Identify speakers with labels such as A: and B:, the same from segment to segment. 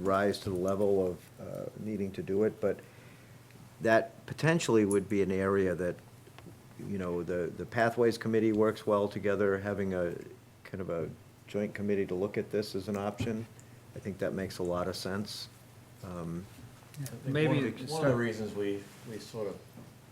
A: rise to the level of uh, needing to do it, but that potentially would be an area that, you know, the, the Pathways Committee works well together, having a, kind of a joint committee to look at this as an option. I think that makes a lot of sense. Um,
B: Maybe
C: One of the-
B: it's
C: One of the
B: start-
C: reasons we, we sort of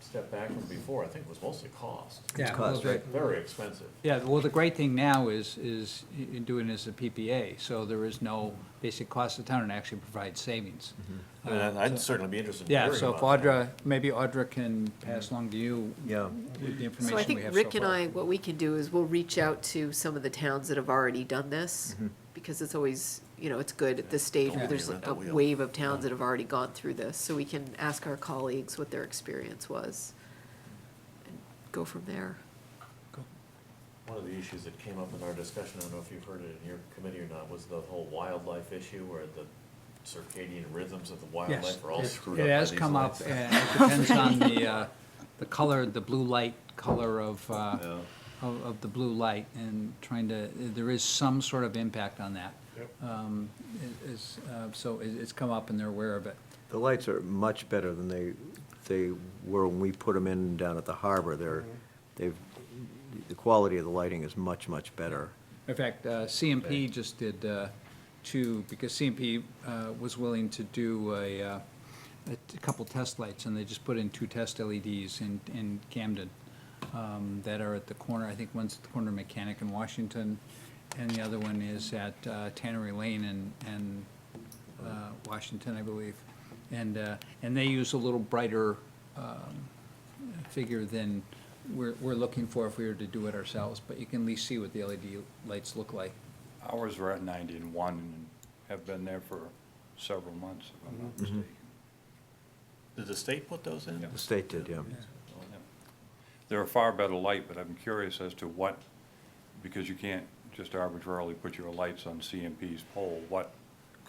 C: stepped back from before, I think, was mostly cost.
B: Yeah,
A: cost,
B: well, the-
A: right?
C: Very expensive.
B: Yeah, well, the great thing now is, is you do it as a PPA, so there is no basic cost to town and actually provides savings. Uh,
C: I mean, Mm-hmm. I'd certainly be interested in
B: Yeah,
C: hearing
B: so if
C: about that.
B: Audra, maybe Audra can pass along to you
A: Yeah,
B: with the information we have so
D: So
B: far.
D: I think Rick and I, what we can do is we'll reach out to some of the towns that have already done this, because it's always, you know, it's good at this stage where
B: Mm-hmm. Don't
D: there's
C: reinvent
D: a
C: the wheel.
D: wave of towns that have already gone through this, so we can ask our colleagues what their experience was. and Go from there.
C: One of the issues that came up in our discussion, I don't know if you've heard it in your committee or not, was the whole wildlife issue where the circadian rhythms of the
B: Yes,
C: wildlife are all
B: it-
C: screwed up by
B: It has
C: these
B: come up,
C: lights.
B: and it depends on the, uh, the color, the blue light color of, uh,
C: Yeah.
B: of, of the blue light, and trying to, there is some sort of impact on that.
C: Yep.
B: Um, it- It's, uh, so it- it's come up and they're aware of it.
A: the lights are much better than they, they were when we put them in down at the harbor. They're, they've, the quality of the lighting is much, much better.
B: In fact, uh, CMP just did uh, two, because CMP uh, was willing to do a, uh, a t- couple test lights, and they just put in two test LEDs in, in Camden um, that are at the corner, I think one's at the corner of Mechanic and Washington, and the other one is at uh, Tannery Lane and, and uh, Washington, I believe. And, uh, and they use a little brighter um, figure than we're, we're looking for if we were to do it ourselves, but you can at least see what the LED lights look like.
E: Ours were at 90 and 1 and have been there for several months, if I'm not mistaken.
C: Did the state put those in?
A: The state did, yeah.
E: They're a far better light, but I'm curious as to what, because you can't just arbitrarily put your lights on CMP's pole, what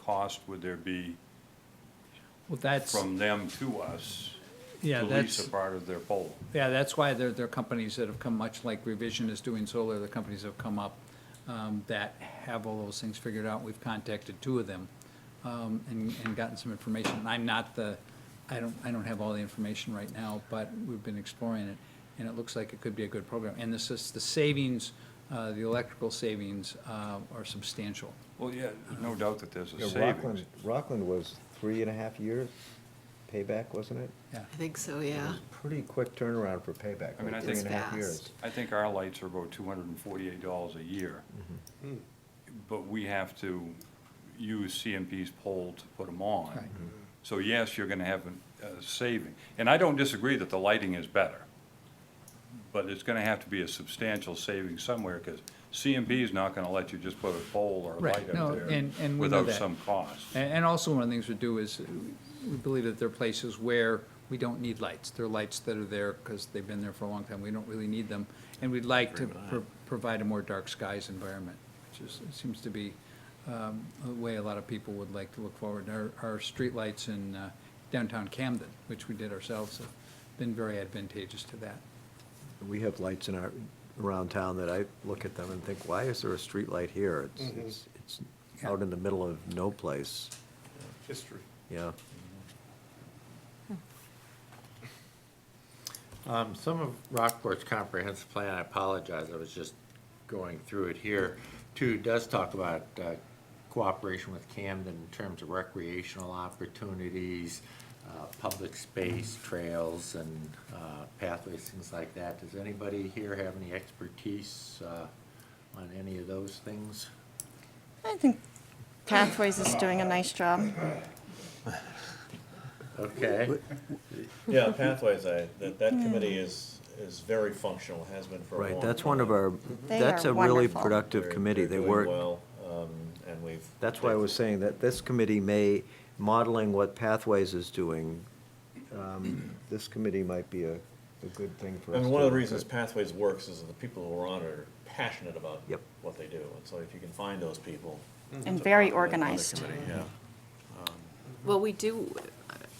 E: cost would there be
B: Well, that's,
E: from them to us
B: yeah,
E: to lease
B: that's,
E: a part of their pole?
B: yeah, that's why there, there are companies that have come, much like Revision is doing solar, the companies have come up um, that have all those things figured out. We've contacted two of them um, and, and gotten some information. And I'm not the, I don't, I don't have all the information right now, but we've been exploring it, and it looks like it could be a good program. And this is, the savings, uh, the electrical savings uh, are substantial.
E: Well, yeah, no doubt that there's a
A: Yeah,
E: savings.
A: Rockland, Rockland was three and a half years payback, wasn't it?
B: Yeah.
D: I think so,
A: It
D: yeah.
A: was Pretty quick turnaround for payback,
E: I mean,
A: like
E: I
A: three
E: think-
A: and a half
D: It's
A: years.
D: fast.
E: I think our lights are about $248 a year. But we have to use CMP's pole to put them
B: Right.
E: on. So yes, you're gonna have a saving. And I don't disagree that the lighting is better. But it's gonna have to be a substantial saving somewhere, because CMP is not gonna let you just put a pole or a
B: Right,
E: light
B: no,
E: up
B: and- and
E: there
B: we know
E: without
B: that.
E: some cost.
B: And, and also one of the things we do is, uh, we believe that there are places where we don't need lights. There are lights that are there because they've been there for a long time. We don't really need them. And we'd like to pro- provide a more dark skies environment, which is, seems to be, um, a way a lot of people would like to look forward. Our, our streetlights in uh, downtown Camden, which we did ourselves, have been very advantageous to that.
A: We have lights in our, around town that I look at them and think, why is there a street light here? It's, it's, it's out in the middle of no place,
F: history.
A: yeah.
G: Um, Some of Rockport's comprehensive plan, I apologize, I was just going through it here, too, does talk about uh, cooperation with Camden in terms of recreational opportunities, uh, public space, trails, and uh, pathways, things like that. Does anybody here have any expertise uh, on any of those things?
H: I think Pathways is doing a nice job.
G: Okay,
C: Yeah, Pathways, I, that, that committee is, is very functional, has been for a long
A: Right, that's one of
C: time.
A: our,
H: They
A: that's
H: are
A: a really
H: wonderful.
A: productive
C: They're-
A: committee. They
C: they're
A: work,
C: Doing well, um, and we've.
A: that's why I was saying that this committee may, modeling what Pathways is doing, um, this committee might be a, a good thing for us.
C: I mean, one of
A: to look
C: the reasons
A: at.
C: Pathways works is that the people who are on it are passionate about
A: Yep.
C: what they do, and so if you can find those people.
H: Mm-hmm. And
C: it's a
H: very
C: popular- other
H: organized.
C: committee, Yeah.
D: Well, we do,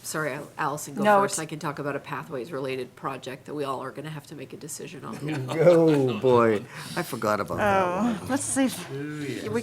D: sorry, Allison, go
H: No,
D: first.
H: it's-
D: I can talk about a pathways-related project that we all are gonna have to make a decision on.
A: Oh, boy, I forgot about that.
H: Oh, let's see. if- we-